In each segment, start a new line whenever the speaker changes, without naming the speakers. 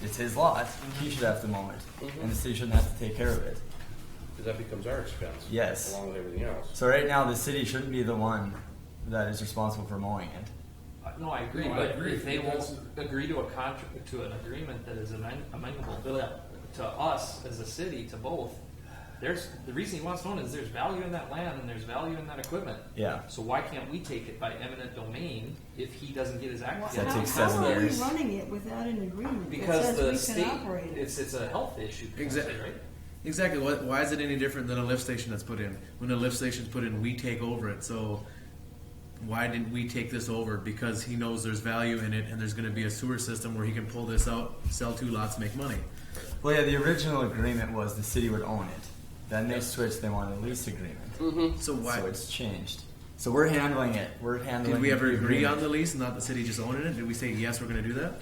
his lot,
Mm-hmm.
he should have to mow it, and the city shouldn't have to take care of it.
Because that becomes our expense.
Yes.
Along with everything else.
So right now, the city shouldn't be the one that is responsible for mowing it.
Uh, No, I agree,
No, I
but
agree.
if they
That's-
won't agree to a contract, to an agreement that is amend- amendable to us as a city, to both, there's, the reason he wants to own it is there's value in that land and there's value in that equipment.
Yeah.
So why can't we take it by eminent domain if he doesn't get his act
Yeah, it
together?
takes seven
How are we
years.
running it without an agreement that
Because the
says we
state,
can operate it?
it's, it's a health issue, potentially,
Exactly.
right?
Exactly. Why, why is it any different than a lift station that's put in? When a lift station's put in, we take over it. So why didn't we take this over? Because he knows there's value in it, and there's going to be a sewer system where he can pull this out, sell two lots, make money.
Well, yeah, the original agreement was the city would own it. Then they switched, they wanted a lease agreement.
So Mm-hmm. why
So it's changed. So we're handling it. We're handling.
did we ever
the
agree on
agreement.
the lease, and not the city just owning it? Did we say yes, we're going to do that?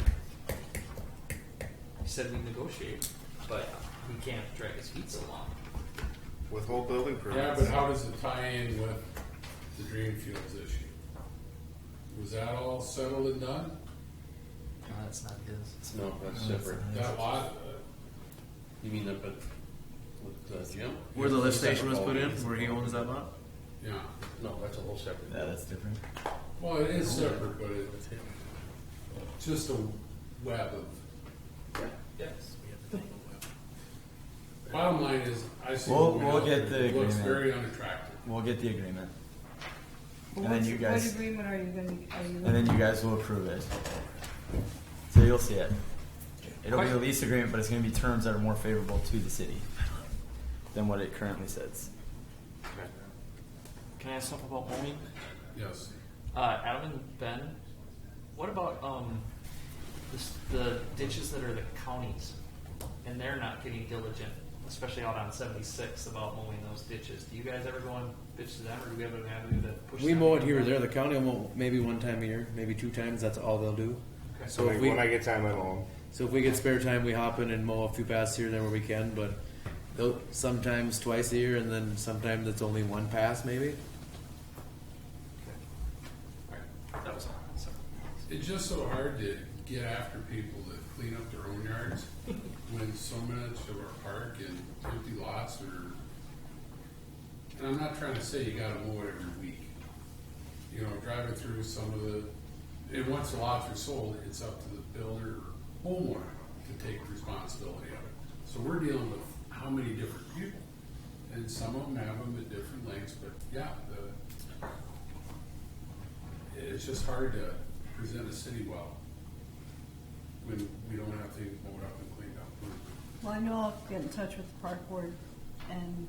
He said we negotiate, but we can't drag his feet so long.
With whole building
Yeah,
permits.
but how does it tie in with the Dream Fields issue? Was that all settled and done?
No, that's not his.
No, that's separate.
That lot, uh,
You mean up at, with uh, Jim?
Where the lift
Separate
station was put in,
building.
where he owns that lot?
yeah.
No, that's a whole separate.
Yeah, that's different.
Well, it is separate, but it's just a web of,
Yes.
bottom line is, I see.
We'll-
what we
we'll
have
get
here. It
the
Looks
agreement.
very unattractive.
We'll get the agreement,
Well,
and then
what's-
you guys-
What agreement are you going to, are you?
and
Mm-hmm.
then you guys will approve it. So you'll see it. It'll be a lease agreement, but it's going to be terms that are more favorable to the city than what it currently says.
Can I ask something about mowing?
Yes.
Uh, Adam and Ben, what about um, the, s- the ditches that are the counties, and they're not getting diligent, especially out on seventy-six about mowing those ditches. Do you guys ever go and bitch to them, or do we have an avenue to push?
We
them
mow
to
it
do
here or
that?
there. The county will mow maybe one time a year, maybe two times. That's all they'll do.
Okay.
So if we,
when I get time at home.
So if we get spare time, we hop in and mow a few paths here and there where we can, but they'll- sometimes twice a year, and then sometimes it's only one pass maybe.
Okay. All right. That was all. Sorry.
It's just so hard to get after people that clean up their own yards when so much of our park and empty lots are. And I'm not trying to say you gotta mow it every week. You know, driving through some of the, and once the lots are sold, it's up to the builder or homeowner to take responsibility of it. So we're dealing with how many different people, and some of them have them at different lengths, but yeah, the, it's just hard to present a city well when we don't have things mowed up and cleaned up.
Well, I know I'll get in touch with the park board and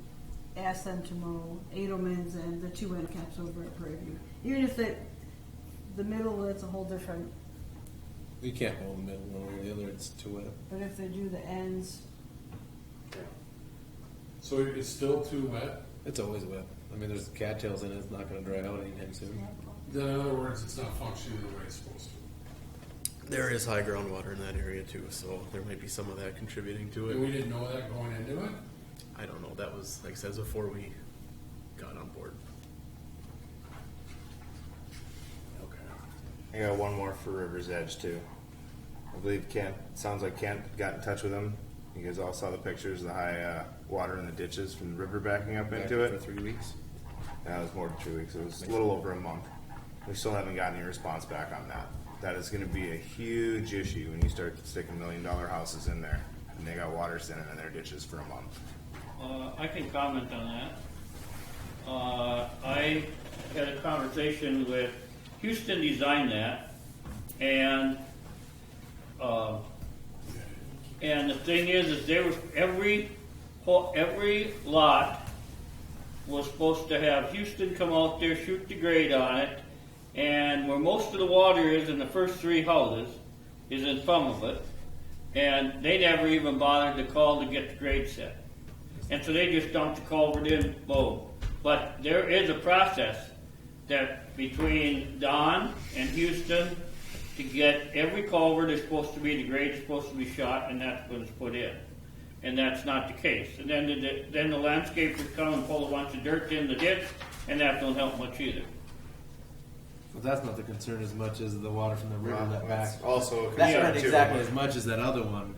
ask them to mow Edelman's and the two end caps over at Prairie View. Even if it, the middle, that's a whole different,
We can't mow the middle one or the other. It's too wet.
but if they do the ends,
So it's still too wet.
It's always wet. I mean, there's cattails in it. It's not going to dry out anytime soon.
Then in other words, it's not functioning the way it's supposed to.
There is high groundwater in that area too, so there might be some of that contributing to
And we didn't know that going into it.
I don't know. That was like says before we got on board.
I got one more for River's Edge too. I believe Kent. Sounds like Kent got in touch with him. You guys all saw the pictures of the high uh, water in the ditches from the river backing up into
for
it.
three weeks.
That was more than two weeks. It was a little over a month. We still haven't gotten any response back on that. That is going to be a huge issue when you start sticking million dollar houses in there and they got water standing in their ditches for a month.
Uh, I can comment on that. Uh, I had a conversation with Houston designed that, and uh, and the thing is, is there was every ho- every lot was supposed to have Houston come out there shoot the grade on it, and where most of the water is in the first three houses is in Fumblefoot, and they never even bothered to call to get the grade set. And so they just dumped the culvert in, boom. But there is a process that between Don and Houston to get every culvert is supposed to be, the grade is supposed to be shot, and that's when it's put in. And that's not the case. And then the, then the landscapers come and pull a bunch of dirt in the ditch, and that don't help much either.
But that's not the concern as much as the water from the river
Well,
that
that's
back.
also a
That's
concern,
not
too.
exactly as much as that other one.